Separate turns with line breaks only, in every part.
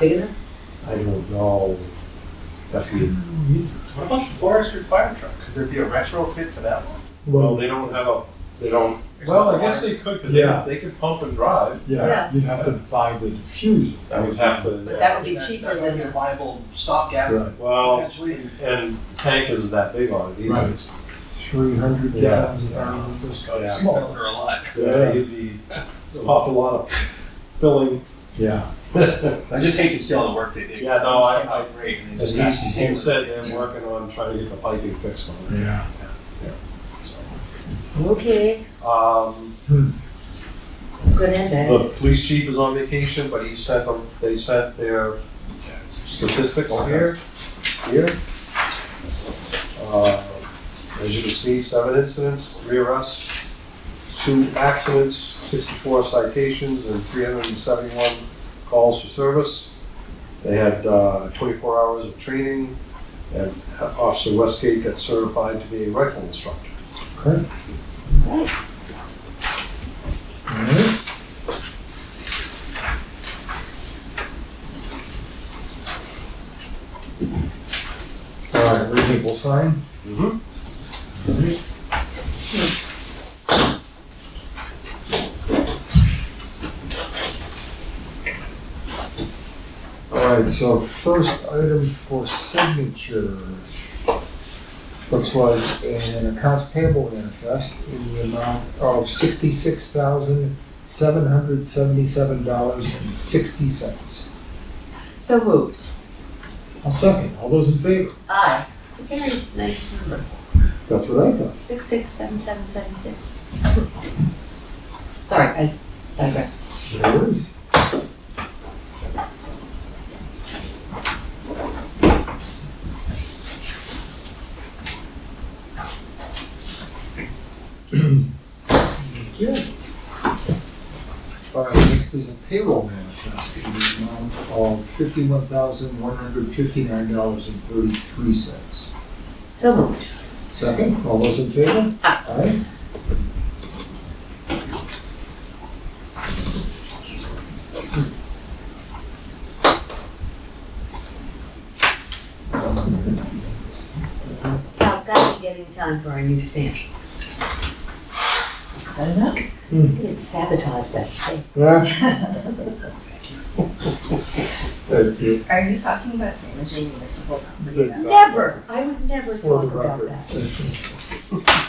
big enough?
I don't know. That's the,
What about the Forester fire truck? Could there be a retrofit for that one?
Well,
they don't have a, they don't.
It's
Well,
not
I guess
water.
they could, cause
Yeah.
they, they could pump and drive.
yeah,
Yeah.
you'd have to buy the diffuser.
I would have
But
to,
that would be
That-
cheaper
That might
than
be a
the,
viable stopgap
Right.
well,
potentially.
and the tank isn't that big on it either.
It's three hundred
Yeah.
gallons.
Um,
or just-
Oh, yeah.
Six cylinder a lot.
Yeah, you'd be an awful lot of filling.
Yeah,
I just hate to see all the work they do.
Yeah, no, I- I-
agree.
And he's, he said they're working on trying to get the piping fixed on it.
yeah.
okay,
Um,
good and bad.
the police chief is on vacation, but he sent them, they sent their statistics here, here. Uh, As you can see, seven incidents, three arrests, two accidents, sixty-four citations, and three hundred and seventy-one calls for service. They had uh, twenty-four hours of training, and Officer Westgate got certified to be a rifle instructor.
Okay. Alright. Alright, reasonable sign.
Mm-hmm.
Alright. Alright, so first item for signature. Looks like an accounts payable manifest in the amount of sixty-six thousand, seven hundred seventy-seven dollars and sixty cents.
So moved.
I'll second. All those in favor?
Aye. It's a very nice number.
That's what I thought.
Six, six, seven, seven, seven, six. Sorry, I digress.
There it is. Thank you. All right, next is a payroll manifest in the amount of fifty-one thousand, one hundred fifty-nine dollars and thirty-three cents.
So moved.
Second, all those in favor?
Aye.
Aye.
Now, I've got to get in time for our new stamp. Cut it up.
Hmm.
It sabotaged that stamp.
Yeah. Thank you.
Are you talking about damaging municipal property?
Good.
Never, I would never
For
talk
the
about
record.
that.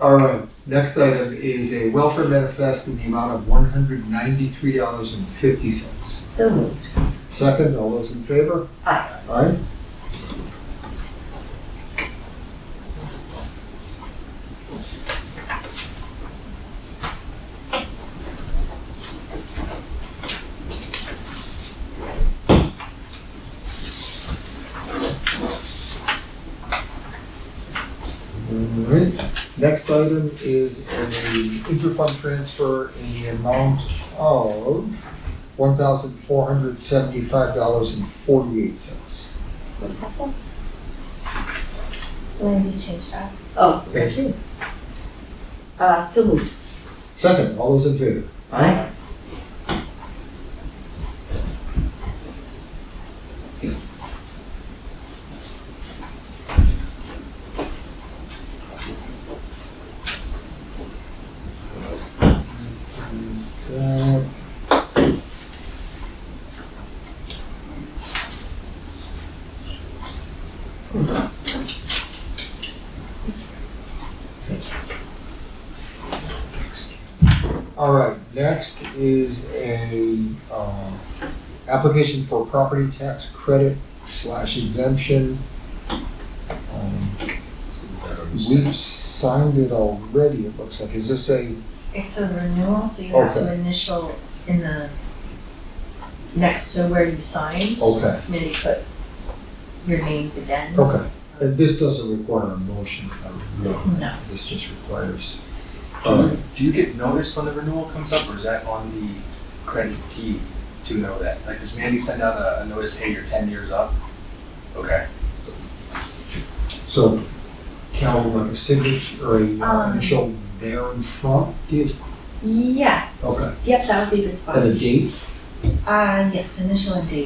All right, next item is a welfare manifest in the amount of one hundred ninety-three dollars and fifty cents.
So moved.
Second, all those in favor?
Aye.
Aye. All right, next item is an interfund transfer in the amount of one thousand four hundred seventy-five dollars and forty-eight cents.
What's that for?
Land use change tax?
Oh,
Thank you.
uh, so moved.
Second, all those in favor?
Aye.
Uh, All right, next is a, uh, application for property tax credit slash exemption. Um, We've signed it already, it looks like. Is this a,
It's a renewal, so you have to
Okay.
initial in the, next to where you signed.
okay,
And then you put your names again.
okay. And Uh, this doesn't require a motion, uh,
No.
this just requires. uh,
Do you, do you get notice when the renewal comes up, or is that on the credit key to know that? Like, does Mandy send out a, a notice, hey, you're ten years up? Okay.
So, Cal, like a signature or a uh,
Um.
initial there in front, do you-
Yeah,
okay,
yep, that would be the
and a
spot.
date?
Uh, yes, initial and date.